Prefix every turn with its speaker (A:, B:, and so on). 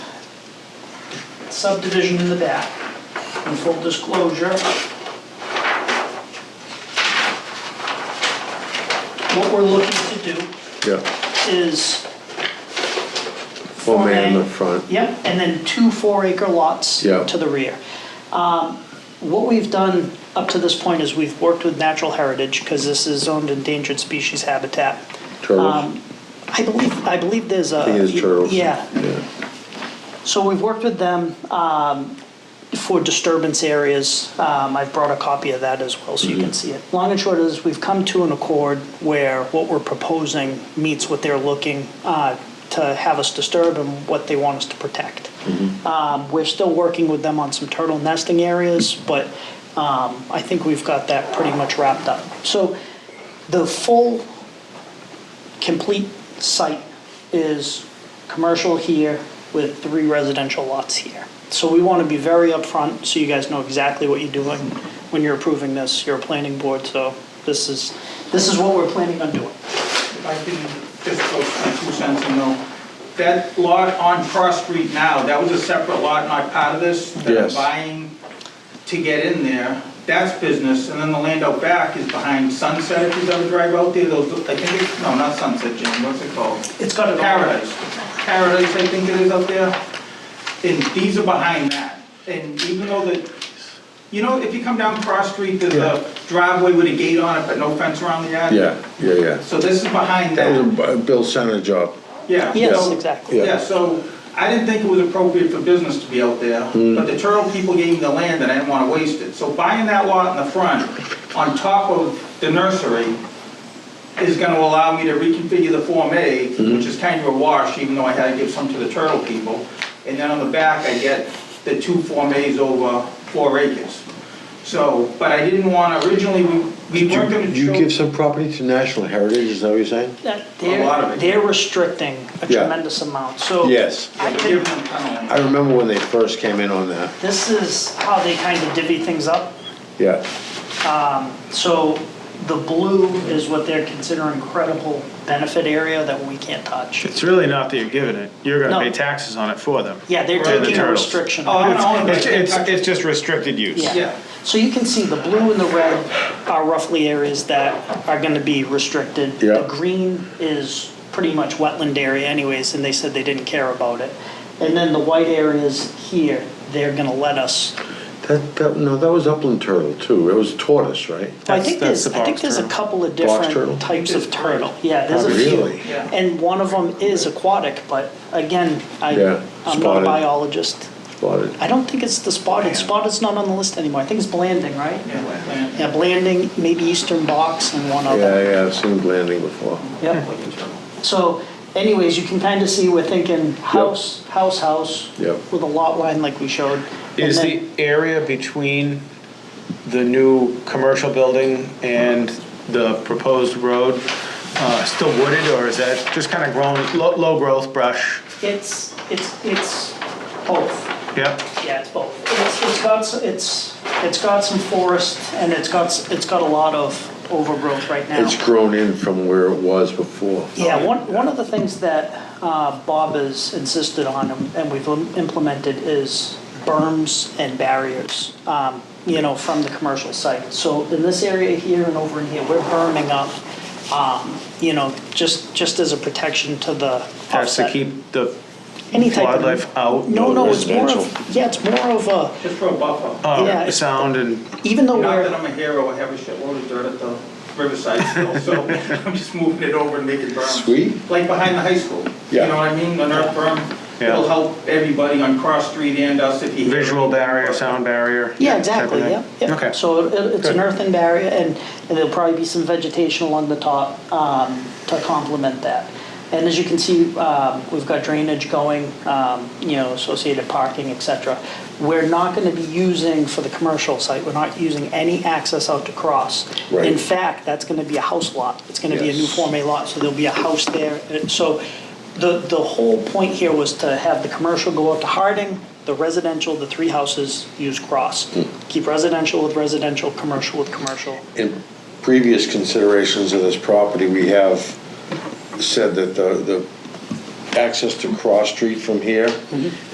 A: subdivision in the back. In full disclosure, what we're looking to do
B: yeah,
A: is,
B: full man in the front,
A: yep, and then two four-acre lots
B: Yeah.
A: to the rear. Um, What we've done up to this point is we've worked with Natural Heritage, because this is zoned endangered species habitat.
B: turtles.
A: Um, I believe, I believe there's a.
B: I think it is turtles.
A: Yeah,
B: Yeah.
A: So we've worked with them um, for disturbance areas. Um, I've brought a copy of that as well, so you can see it. Long and short is, we've come to an accord where what we're proposing meets what they're looking uh, to have us disturb and what they want us to protect. Um, We're still working with them on some turtle nesting areas, but um, I think we've got that pretty much wrapped up. So the full complete site is commercial here with three residential lots here. So we want to be very upfront, so you guys know exactly what you're doing when you're approving this. You're a planning board, so this is, this is what we're planning on doing.
C: If I can just go my two cents and know, that lot on Cross Street now, that was a separate lot, not part of this? That
B: Yes.
C: I'm buying to get in there, that's business, and then the land out back is behind Sunset, if you ever drive out there, those, I think it's, no, not Sunset, Jim, what's it called?
A: It's got a
C: Paradise, Paradise, I think it is up there, and these are behind that, and even though the, you know, if you come down Cross Street, there's a driveway with a gate on it, but no fence around the yard?
B: Yeah, yeah, yeah.
C: So this is behind
B: That
C: that.
B: was a B- Bill Center job.
C: Yeah.
A: Yes,
C: so-
A: exactly.
B: Yeah.
C: Yeah, so I didn't think it was appropriate for business to be out there,
B: Mm.
C: but the Turtle people gave me the land and I didn't want to waste it. So buying that lot in the front, on top of the nursery, is going to allow me to reconfigure the Form A,
B: Mm-hmm.
C: which is kind of a wash, even though I had to give some to the Turtle people. And then on the back, I get the two Form As over four acres. So, but I didn't want, to originally, we we
B: You
C: weren't going to
B: you
C: show...
B: give some property to National Heritage, is that what you're saying?
A: That-
C: A lot of
A: They're,
C: it.
A: they're restricting a
B: Yeah.
A: tremendous amount, so.
B: Yes.
A: I
C: Yeah,
A: can-
C: give them kind of
B: I
C: land.
B: remember when they first came in on that.
A: This is how they kind of divvy things up.
B: Yeah,
A: So the blue is what they're considering credible benefit area that we can't touch.
D: It's really not that you're giving it, you're
A: No.
D: gonna pay taxes on it for them.
A: Yeah, they're
C: Or the
A: taking a
D: turtles.
A: restriction.
C: Oh,
A: off.
C: I don't own it.
D: It's, it's, it's just restricted use.
C: Yeah.
A: Yeah. So you can see the blue and the red are roughly areas that are going to be restricted.
B: Yeah.
A: The green is pretty much wetland area anyways, and they said they didn't care about it. And then the white areas here, they're going to let us.
B: that, that, no, that was upland turtle too, it was tortoise,
A: I
B: right?
D: That's-
A: think
D: that's
A: there's,
D: the
A: I think
D: box
A: there's a
D: turtle.
A: couple of
B: turtle?
A: different types of turtle. Yeah, there's a few.
B: Really?
C: Yeah.
A: And one of them is aquatic, but again, I,
B: Yeah,
A: I'm not
B: spotted.
A: a biologist.
B: Spotted.
A: I don't think it's the spotted. Spotted's not on the list anymore. I think it's Blanding, right?
C: Yeah, land.
A: Yeah, Blanding, maybe Eastern Box and one other.
B: Yeah, yeah, I've seen Blanding before.
A: Yep. So anyways, you can kind of see we're thinking house, house, house.
B: Yep.
A: With a lot line like we showed. And
D: Is the
A: then-
D: area between the new commercial building and the proposed road uh, still wooded, or is that just kind of grown, low, low growth brush?
A: It's, it's, it's both.
D: Yep,
A: Yeah, it's both. It's, it's got, s- it's, it's got some forest and it's got, s- it's got a lot of overgrowth right now.
B: It's grown in from where it was before.
A: Yeah, one, one of the things that uh, Bob has insisted on and- and we've im- implemented is berms and barriers, um, you know, from the commercial site. So in this area here and over in here, we're berming up, um, you know, just, just as a protection to the
D: that's to
A: offset.
D: keep the
A: Any type of-
D: wildlife out.
A: No, no, it's more
B: residential.
A: of, yeah, it's more of a,
C: Just for a buffer.
D: uh,
A: yeah, it's-
D: Sound and,
A: even though
C: Not
A: we're.
C: that I'm a hero, I have a shitload of dirt at the Riverside still, so I'm just moving it over and making berms.
B: Sweet.
C: Like behind the high school.
B: Yeah.
C: You know what I mean? The earth berm.
D: Yeah.
C: It'll help everybody on Cross Street and us if you.
D: visual barrier, sound barrier.
A: Yeah,
D: type of
A: exactly,
D: thing.
A: yeah, yeah.
D: Okay.
A: So it- it's an
D: Good.
A: earthen barrier, and and there'll probably be some vegetation along the top um, to complement that. And as you can see, um, we've got drainage going, um, you know, associated parking, et cetera. We're not going to be using, for the commercial site, we're not using any access out to Cross.
B: Right.
A: In fact, that's going to be a house lot. It's going to be a new
B: Yes.
A: Form A lot, so there'll be a house there. And So the, the whole point here was to have the commercial go out to Harding, the residential, the three houses use Cross. Keep residential with residential, commercial with commercial.
B: In previous considerations of this property, we have said that the, the access to Cross Street from here